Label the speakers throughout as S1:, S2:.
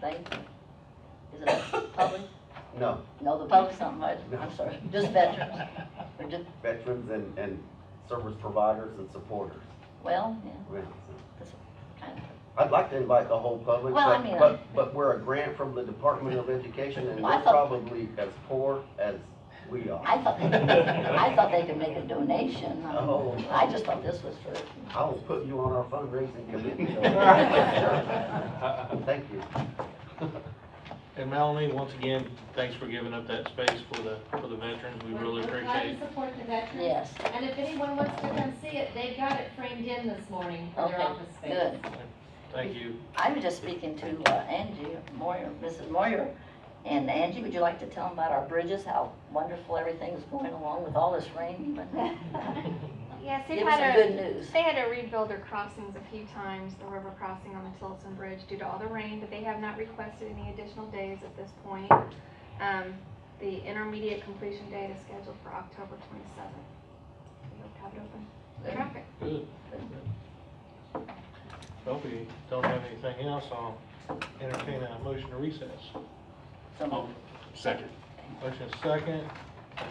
S1: Thank you. Is it public?
S2: No,
S1: No, the public's not much, I'm sorry, just veterans. Or just,
S2: veterans and, and service providers and supporters.
S1: well, yeah,
S2: Yeah.
S1: kind of.
S2: I'd like to invite the whole public,
S1: Well, I
S2: but,
S1: mean, uh,
S2: but, but we're a grant from the Department of Education and
S1: Well, I
S2: we're
S1: thought-
S2: probably as poor as we are.
S1: I thought, they could- I thought they could make a donation. I mean,
S2: Oh.
S1: I just thought this was for,
S2: I will put you on our fundraising committee. Thank you.
S3: And Melanie, once again, thanks for giving up that space for the, for the veterans, we really
S4: We're glad
S3: appreciate
S4: to support the veterans.
S1: yes,
S4: And if anyone wants to come see it, they've got it framed in this morning for their
S1: Okay,
S4: office space.
S1: good.
S3: it, thank you.
S1: I was just speaking to uh, Angie Moyer, Mrs. Moyer, and Angie, would you like to tell them about our bridges, how wonderful everything's going along with all this rain? But
S5: Yes, they've
S1: Give us some
S5: had a,
S1: good news.
S5: they had to rebuild their crossings a few times, the river crossing on the Tilson Bridge due to all the rain, but they have not requested any additional days at this point. Um, the intermediate completion date is scheduled for October twenty-seventh. We hope to have it open for traffic.
S3: Good. Hope you don't have anything else, I'll entertain a motion to recess.
S1: Some-
S6: Second.
S3: Motion is second,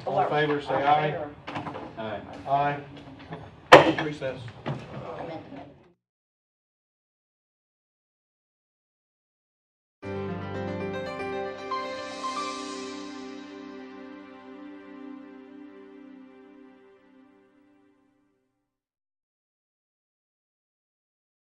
S3: all in favor, say aye. Aye. Recess.